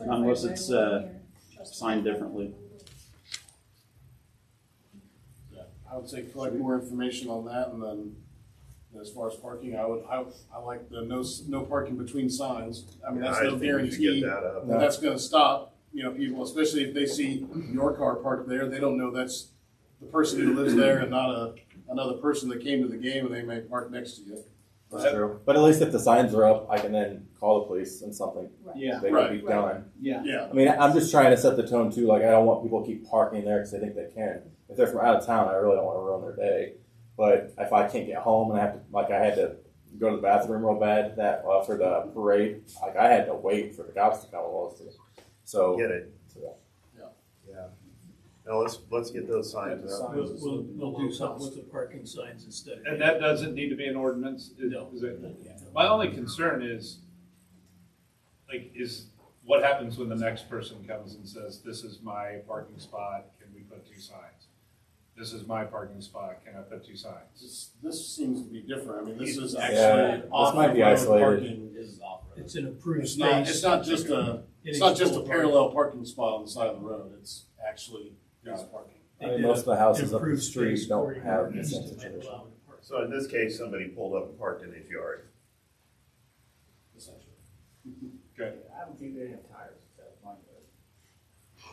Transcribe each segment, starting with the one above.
Unless it's, uh, signed differently. I would say collect more information on that and then as far as parking, I would, I, I like the no, s- no parking between signs. I mean, that's I no think we should guarantee Get that up. that that's gonna stop, you know, people, especially if they see your car parked there, they don't know that's the person who lives there and not a, another person that came to the game and they may park next to you. That's true. But at least if the signs are up, I can then call the police and something. Yeah, They Right. can be done. yeah. Yeah, I mean, I'm just trying to set the tone too. Like, I don't want people to keep parking there because they think they can. If they're from out of town, I really don't want to ruin their day. But if I can't get home and I have to, like, I had to go to the bathroom real bad that uh, for the parade, like, I had to wait for the cops to come along. So, Get it. so, Yeah. Now let's, let's get those signs Yeah, the up. sign. We'll, we'll, we'll do something with the parking signs instead. And that doesn't need to be an ordinance, is is it? My only concern is, like, is what happens when the next person comes and says, this is my parking spot, can we put two signs? This is my parking spot, can I put two signs? this, this seems to be different. I mean, this is Yeah, actually this off might the be road isolated. parking. It's an approved It's space. not, it's not just a, it's not just a parallel parking spot on the side of the road. It's actually guys parking. I mean, most of the houses up the street don't have this Improved sense space of for you. tradition. So in this case, somebody pulled up and parked in his yard. essentially. Okay, I don't think they have tires, so mine does.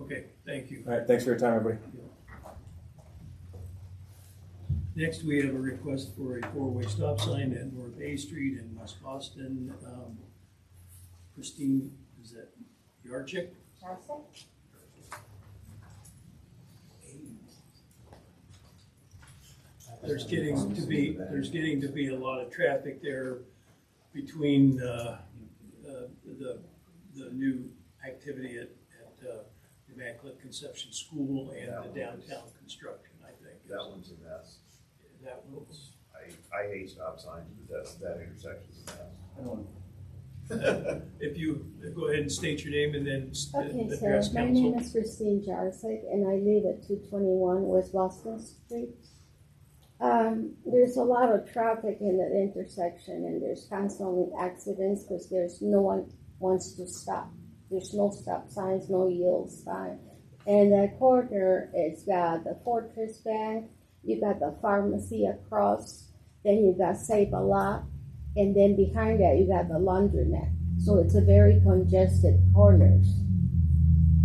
Okay, thank you. All right, thanks for your time, everybody. Next, we have a request for a four-way stop sign at North A Street in West Boston. Um, Christine, is that Yarchik? There's getting to be, there's getting to be a lot of traffic there between, uh, uh, the, the new activity at, at, uh, Immaculate Conception School and the downtown construction, I think. That one's a mess. That was, I, I hate stop signs, but that's, that intersection's a mess. if you, go ahead and state your name and then s- Okay, address so my name council. is Christine Jarczyk and I live at two twenty-one West Boston Street. Um, there's a lot of traffic in that intersection and there's constantly accidents because there's no one wants to stop. There's no stop signs, no yield sign. And that corner, it's got the Fortress Bank, you got the pharmacy across, then you got Save a Lot, and then behind that you got the laundromat. So it's a very congested corners.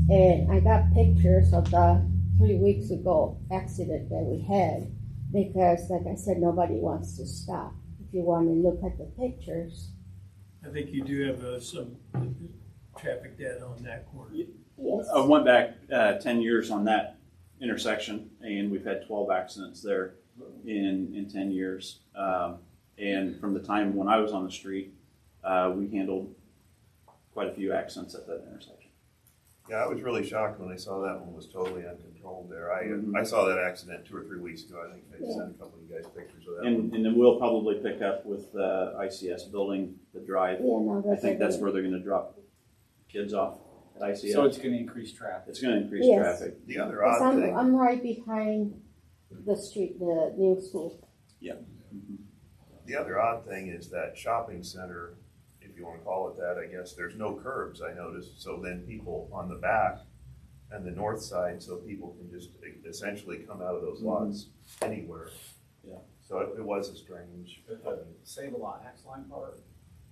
And I got pictures of the three weeks ago accident that we had because, like I said, nobody wants to stop. If you want to look at the pictures, I think you do have uh, some traffic data on that corner. yes. I went back uh, 10 years on that intersection, and we've had 12 accidents there in, in 10 years. Um, and from the time when I was on the street, uh, we handled quite a few accidents at that intersection. Yeah, I was really shocked when I saw that one was totally uncontrolled there. I, Mhm. I saw that accident two or three weeks ago. I think I sent a couple of you guys pictures of that one. And, and then we'll probably pick up with the ICS building, the drive. Yeah, no, I that's think that's okay. where they're going to drop kids off at ICS. So it's gonna increase traffic. it's going to increase Yes. traffic. The other 'Cause odd I'm, thing, I'm right behind the street, the new school. the other odd thing is that shopping center, if you wanna call it that, I guess, there's no curbs, I noticed. So then people on the back and the north side, so people can just e, essentially come out of those lots anywhere. Mm-hmm. Yeah. So it, it was a strange. Save a lot, Axe Line Park.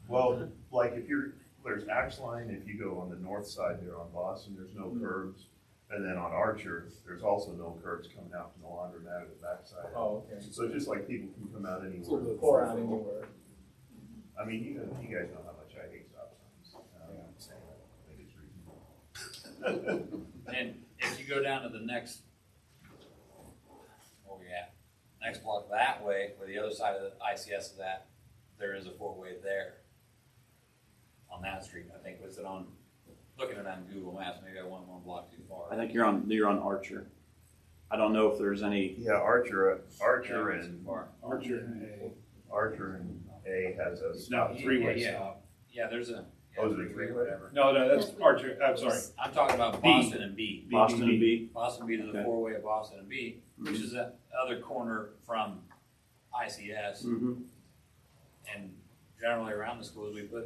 Well, like if you're, there's Axe Line, if you go on the north side there on Boston, there's no curbs. And then on Archer, there's also no curbs coming out from the laundromat at the backside. Oh, okay. So just like people can come out anywhere. Or out anywhere. I mean, you know, you guys know how much I hate stop signs. Um, I think it's reasonable. And if you go down to the next, where we at? Next block that way, where the other side of the ICS is at, there is a four-way there. On that street, I think, was it on, looking at it on Google Maps, maybe I went one block too far. I think you're on you're on Archer. I don't know if there's any. Yeah, Archer, Yeah, I Archer went too and, far. Archer and A, Archer and A has a, no, three-way Yeah, yeah. stop. Yeah, there's a. yeah, Oh, is it a or three-way? Whatever. No, no, that's Archer, I'm sorry. I'm talking about B. Boston and B. Boston and B. Boston B to the Okay. four-way of Boston and B, Hmm. which is that other corner from ICS. Mm-hmm. And generally around the schools, we put